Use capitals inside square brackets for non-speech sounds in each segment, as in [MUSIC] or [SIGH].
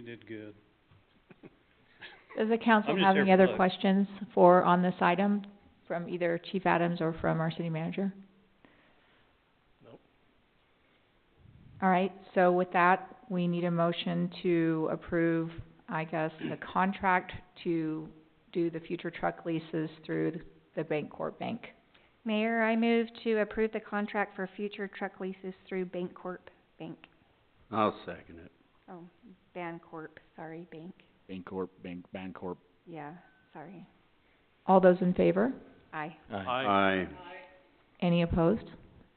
did good. Does the council I'm just have here any for other looks. questions for, on this item, from either Chief Adams or from our city manager? Nope. All right, so with that, we need a motion to approve, I guess, the contract to do the future truck leases through the- the Bancorp Bank. Mayor, I move to approve the contract for future truck leases through Bancorp Bank, I'll second it. oh, Bancorp, sorry, Bank, Bancorp, Bank, Bancorp. yeah, sorry, All those in favor? aye. Aye. Aye. Any opposed?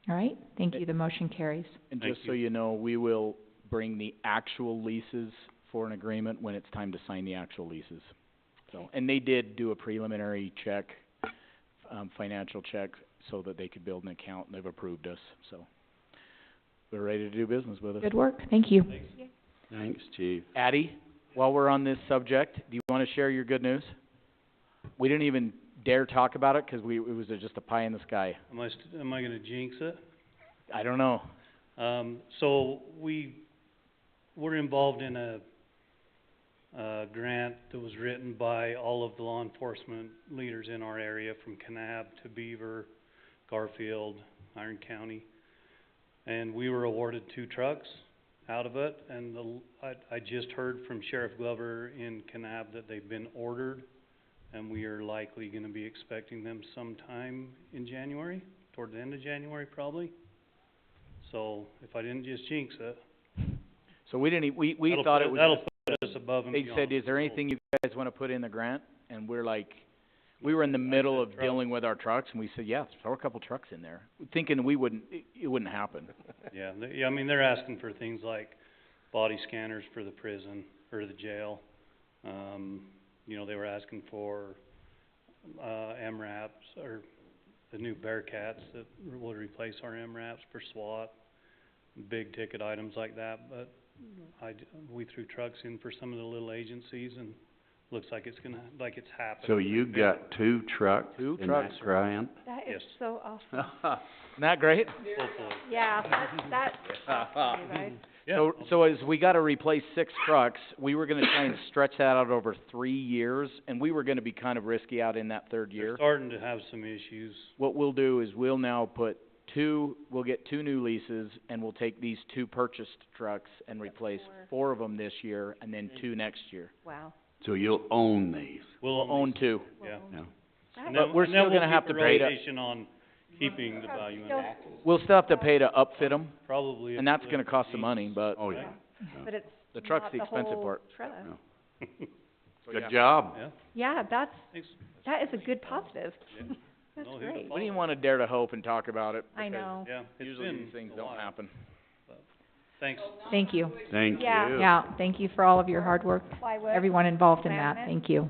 All right, thank you, the motion carries. And Thank just so you. you know, we will bring the actual leases for an agreement when it's time to sign the actual leases. So, Okay. and they did do a preliminary check, um, financial check, so that they could build an account, and they've approved us, so. They're ready to do business with us. Good work, thank you. Thanks. Thanks, chief. Addie, while we're on this subject, do you wanna share your good news? We didn't even dare talk about it, 'cause we, it was just a pie in the sky. Am I st- am I gonna jinx it? I don't know. Um, so we, we're involved in a, a grant that was written by all of the law enforcement leaders in our area from Kanab to Beaver, Garfield, Iron County. And we were awarded two trucks out of it and the, l- I, I just heard from Sheriff Glover in Kanab that they've been ordered and we are likely gonna be expecting them sometime in January, toward the end of January probably. So if I didn't just jinx it, So we didn't e- we, we that'll thought put- it was That'll put us above and they beyond. said, is there anything you guys wanna put in the grant? And we're like, we were in the middle of truck. dealing with our trucks, and we said, yeah, throw a couple trucks in there, thinking we wouldn't, it, it wouldn't happen. Yeah, they, yeah, I mean, they're asking for things like body scanners for the prison or the jail. Um, you know, they were asking for, uh, MRAPs or the new Bearcats that will replace our MRAPs for SWAT. Big ticket items like that, but I, d- we threw trucks in for some of the little agencies and looks like it's gonna, like it's happening. So you got two trucks Two in that trucks. grant? That is Yes. so awesome. Isn't that great? Hopefully. Yeah, that, [LAUGHS] that shocked me, Mm-hmm. right? Yeah. So, so as we gotta replace six trucks, we were gonna try and stretch that out over three years, and we were gonna be kind of risky out in that third They're year. starting to have some issues. What we'll do is we'll now put two, we'll get two new leases, and we'll take these two purchased trucks and replace four. four of them this year, and then two next year. Wow. So you'll own these, We'll We'll own two. Well, Yeah. no? And But then- we're and then still we'll gonna have keep to a pay to- rotation on keeping the value in it. We'll still have to pay to upfit them, Probably. and if that's the- gonna cost some money, but Oh, yeah. But it's the truck's not the expensive whole part. truck. Good job. Yeah, Yeah, that's, thanks. that is a good positive. [LAUGHS] That's No, here's a great. follow-up. We didn't wanna dare to hope and talk about it, I because know. Yeah, it's usually been these things a don't while. happen. Thanks. Thank you. Thank you. Yeah. Yeah, thank you for all of your hard work, Plywood. everyone involved in that, Laminate. thank you.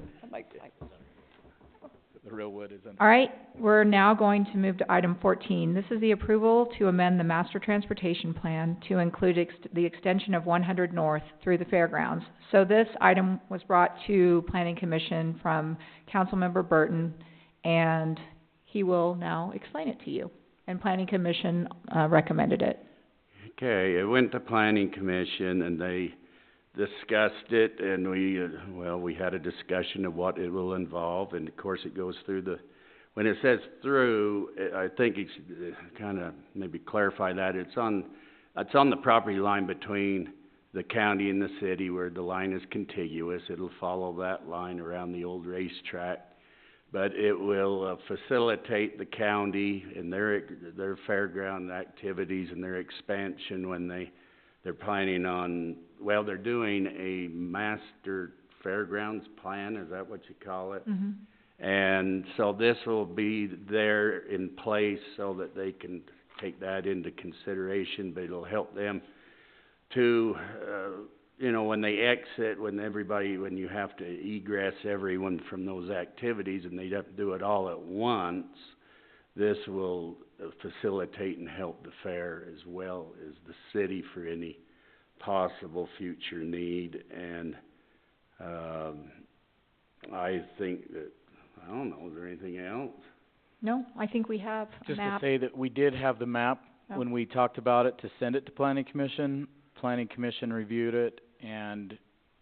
The real wood is in All right, we're now going to move to item fourteen. This is the approval to amend the master transportation plan to include ex- the extension of one hundred north through the fairgrounds. So this item was brought to planning commission from councilmember Burton, and he will now explain it to you. And planning commission, uh, recommended it. Okay, it went to planning commission and they discussed it and we, uh, well, we had a discussion of what it will involve and of course it goes through the, when it says through, uh, I think it's, uh, kinda maybe clarify that, it's on, it's on the property line between the county and the city where the line is contiguous, it'll follow that line around the old racetrack. But it will uh, facilitate the county and their, their fairground activities and their expansion when they, they're planning on, well, they're doing a master fairgrounds plan, is that what you call it? Mm-hmm. And so this will be there in place so that they can take that into consideration, but it'll help them to, uh, you know, when they exit, when everybody, when you have to egress everyone from those activities and they have to do it all at once, this will uh, facilitate and help the fair as well as the city for any possible future need and, um, I think that I don't know, is there anything else? No, I think we have a Just to map. say that we did have the map Oh. when we talked about it to send it to planning commission. Planning commission reviewed it and